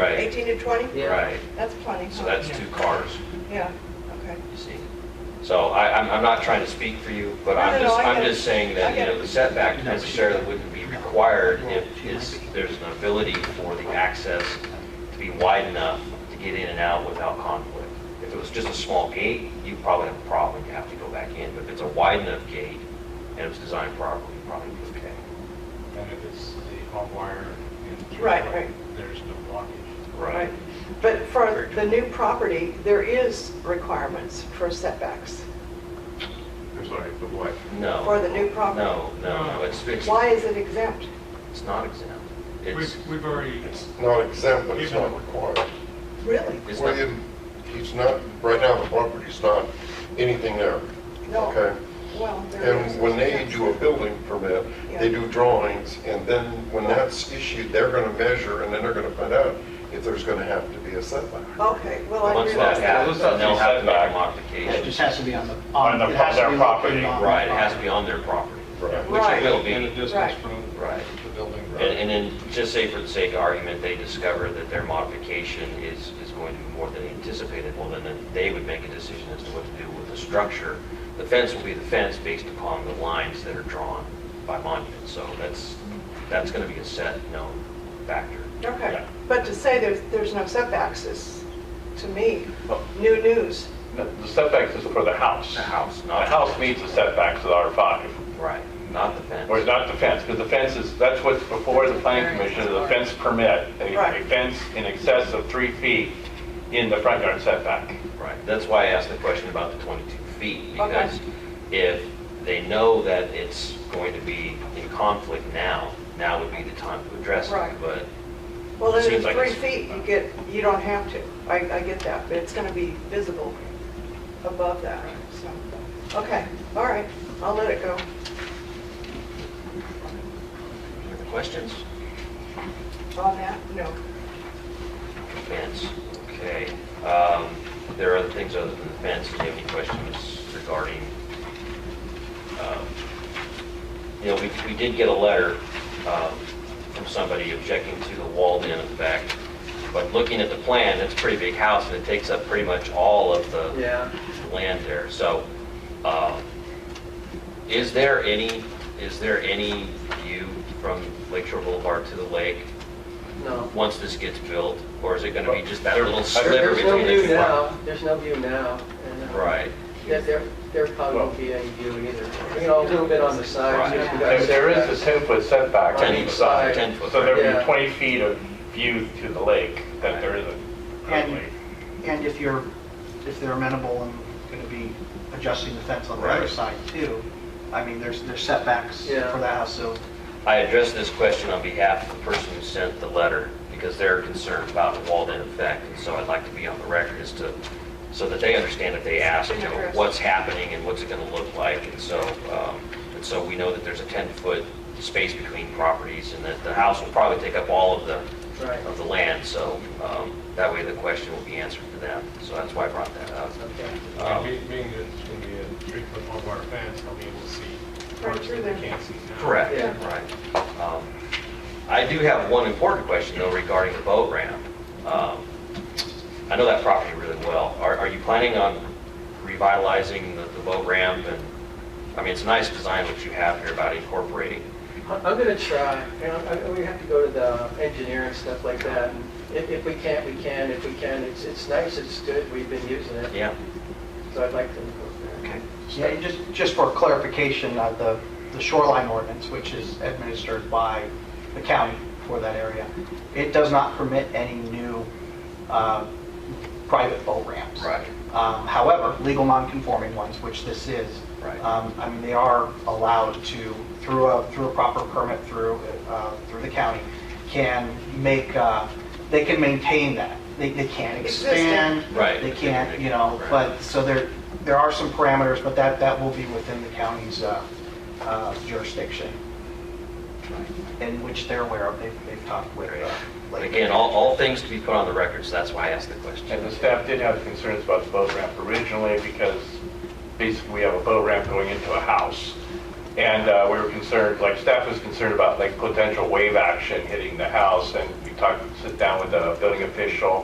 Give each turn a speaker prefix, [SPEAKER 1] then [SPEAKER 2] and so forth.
[SPEAKER 1] Right.
[SPEAKER 2] 18 to 20?
[SPEAKER 3] Yeah.
[SPEAKER 1] Right,
[SPEAKER 2] That's plenty, huh?
[SPEAKER 1] so that's two cars,
[SPEAKER 2] Yeah, okay.
[SPEAKER 1] you see. So I, I'm, I'm not trying to speak for you, but
[SPEAKER 2] No,
[SPEAKER 1] I'm
[SPEAKER 2] no, no,
[SPEAKER 1] just,
[SPEAKER 2] I
[SPEAKER 1] I'm
[SPEAKER 2] get it.
[SPEAKER 1] just saying
[SPEAKER 2] I
[SPEAKER 1] that, you
[SPEAKER 2] get
[SPEAKER 1] know,
[SPEAKER 2] it.
[SPEAKER 1] the setback necessarily wouldn't be required if it's, there's an ability for the access to be wide enough to get in and out without conflict. If it was just a small gate, you probably have a problem, you have to go back in. But if it's a wide enough gate and it was designed properly, you'd probably be okay.
[SPEAKER 4] And if it's the hot wire and.
[SPEAKER 2] Right, right.
[SPEAKER 4] There's no blockage.
[SPEAKER 2] Right. But for the new property, there is requirements for setbacks.
[SPEAKER 5] I'm sorry, the what?
[SPEAKER 1] No.
[SPEAKER 2] For the new property.
[SPEAKER 1] No, no, no, it's, it's,
[SPEAKER 2] Why is it exempt?
[SPEAKER 1] it's not exempt. It's,
[SPEAKER 4] We've, we've already,
[SPEAKER 5] It's not exempt, but it's not required.
[SPEAKER 2] Really?
[SPEAKER 1] it's
[SPEAKER 5] Well,
[SPEAKER 1] not,
[SPEAKER 5] you- he's not, right now, the property's not anything there.
[SPEAKER 2] No.
[SPEAKER 5] Okay.
[SPEAKER 2] Well, there is.
[SPEAKER 5] And when they do a building permit, they
[SPEAKER 2] Yeah.
[SPEAKER 5] do drawings, and then when that's issued, they're gonna measure, and then they're gonna find out if there's gonna have to be a setback.
[SPEAKER 2] Okay, well, I
[SPEAKER 1] once that
[SPEAKER 2] realize that.
[SPEAKER 1] happens, then they'll have to make a
[SPEAKER 3] It just
[SPEAKER 1] modification.
[SPEAKER 3] has to be on the.
[SPEAKER 6] On the-
[SPEAKER 3] it has to
[SPEAKER 6] their
[SPEAKER 3] be located
[SPEAKER 6] property,
[SPEAKER 3] on the
[SPEAKER 1] Right, it has to
[SPEAKER 3] property.
[SPEAKER 1] be on their property,
[SPEAKER 5] Right.
[SPEAKER 1] which
[SPEAKER 2] Right.
[SPEAKER 1] it will
[SPEAKER 4] and a
[SPEAKER 1] be.
[SPEAKER 4] distance
[SPEAKER 2] Right.
[SPEAKER 4] from
[SPEAKER 1] Right.
[SPEAKER 4] the building.
[SPEAKER 1] And, and then, just say for the sake of argument, they discover that their modification is, is going to be more than anticipated, well, then, then they would make a decision as to what to do with the structure. The fence will be the fence based upon the lines that are drawn by monument, so that's, that's gonna be a set, known factor.
[SPEAKER 2] Okay,
[SPEAKER 6] Yeah.
[SPEAKER 2] but to say there's, there's no setbacks is, to me,
[SPEAKER 1] Oh.
[SPEAKER 2] new news.
[SPEAKER 6] No, The setbacks is for the house.
[SPEAKER 1] The house,
[SPEAKER 6] The
[SPEAKER 1] not.
[SPEAKER 6] house meets the setbacks of R5,
[SPEAKER 1] Right, not the fence.
[SPEAKER 6] whereas not the fence, because the fence is, that's what's before the planning commission, is a fence permit, a
[SPEAKER 2] Right.
[SPEAKER 6] a fence in excess of three feet in the front yard setback.
[SPEAKER 1] Right, that's why I asked the question about the 22 feet, because if they know that it's going to be in conflict now, now would be the time to address
[SPEAKER 2] Right.
[SPEAKER 1] it, but
[SPEAKER 2] Well, then
[SPEAKER 1] Seems
[SPEAKER 2] it's
[SPEAKER 1] like
[SPEAKER 2] three
[SPEAKER 1] it's-
[SPEAKER 2] feet, you get, you don't have to. I, I get that, but it's gonna be visible above that, so. Okay, all right, I'll let it go.
[SPEAKER 1] any other questions?
[SPEAKER 2] On that, no.
[SPEAKER 1] Fence, okay. Um, There are other things other than the fence, do you have any questions regarding, um, you know, we we did get a letter um, from somebody objecting to the walled in effect, but looking at the plan, it's a pretty big house, and it takes up pretty much all of the
[SPEAKER 3] Yeah.
[SPEAKER 1] land there. So uh, is there any, is there any view from Lake Shore Boulevard to the lake
[SPEAKER 7] No.
[SPEAKER 1] once this gets built? Or is it going to be just that little
[SPEAKER 6] There-
[SPEAKER 1] sliver
[SPEAKER 7] There's no
[SPEAKER 1] between the
[SPEAKER 7] view
[SPEAKER 1] two?
[SPEAKER 7] now, Um, there's no view now. and, uh,
[SPEAKER 1] Right,
[SPEAKER 7] There, there- there probably won't be any view either. You know, a little bit on the
[SPEAKER 1] Right.
[SPEAKER 7] side. just because
[SPEAKER 6] There there is a 10-foot setback on
[SPEAKER 1] Ten
[SPEAKER 6] each
[SPEAKER 1] foot,
[SPEAKER 6] side,
[SPEAKER 1] ten foot,
[SPEAKER 6] so there would
[SPEAKER 7] yeah.
[SPEAKER 6] be 20 feet of view to the lake that there isn't currently.
[SPEAKER 3] And if you're, if they're amenable and going to be adjusting the fence on the other
[SPEAKER 5] Right.
[SPEAKER 3] side too, I mean, there's, there's setbacks for
[SPEAKER 7] Yeah.
[SPEAKER 3] the house, so
[SPEAKER 1] I addressed this question on behalf of the person who sent the letter because they're concerned about a walled in effect. And so I'd like to be on the record as to, so that they understand if they ask, you know, what's happening and what's it going to look like. And so, um, and so we know that there's a 10-foot space between properties and that the house will probably take up all of the,
[SPEAKER 7] Right.
[SPEAKER 1] of the land. So um, that way the question will be answered for them. So that's why I brought that up.
[SPEAKER 7] Okay.
[SPEAKER 1] Um,
[SPEAKER 4] And be- Uh, being that it's going to be a three foot hot wire fence, I'll be able to see
[SPEAKER 2] Right
[SPEAKER 4] parts
[SPEAKER 2] through
[SPEAKER 4] that they
[SPEAKER 2] there.
[SPEAKER 4] can't see now.
[SPEAKER 1] Correct,
[SPEAKER 7] Yeah.
[SPEAKER 1] right. Um, I do have one important question, though, regarding the boat ramp. Um, I know that property really well. Are are you planning on revitalizing the the boat ramp? And, I mean, it's a nice design what you have here about incorporating.
[SPEAKER 7] I- I'm gonna try, you know, I- we have to go to the engineer and stuff like that. and If, if we can't, we can, if we can, it's, it's nice, it's good, we've been using it,
[SPEAKER 1] Yeah?
[SPEAKER 7] so I'd like to. go there.
[SPEAKER 3] Yeah, and just, just for clarification, uh, the the shoreline ordinance, which is administered by the county for that area, it does not permit any new uh, private boat ramps.
[SPEAKER 1] Right.
[SPEAKER 3] Um, However, legal non-conforming ones, which this is.
[SPEAKER 1] Right.
[SPEAKER 3] um, I mean, they are allowed to, through a, through a proper permit through, uh, through the county, can make, uh, they can maintain that. They they can't
[SPEAKER 2] Existing.
[SPEAKER 3] expand.
[SPEAKER 1] Right.
[SPEAKER 3] They can't, you know,
[SPEAKER 1] Right.
[SPEAKER 3] but so there, there are some parameters, but that, that will be within the county's uh, uh, jurisdiction, in which they're aware of, they've, they've talked with. uh,
[SPEAKER 1] But
[SPEAKER 3] like-
[SPEAKER 1] again, all all things to be put on the record, so that's why I asked the
[SPEAKER 6] And the
[SPEAKER 1] question.
[SPEAKER 6] staff did have concerns about the boat ramp originally because basically we have a boat ramp going into a house. And uh, we were concerned, like staff was concerned about like potential wave action hitting the house and we talk, sit down with a building official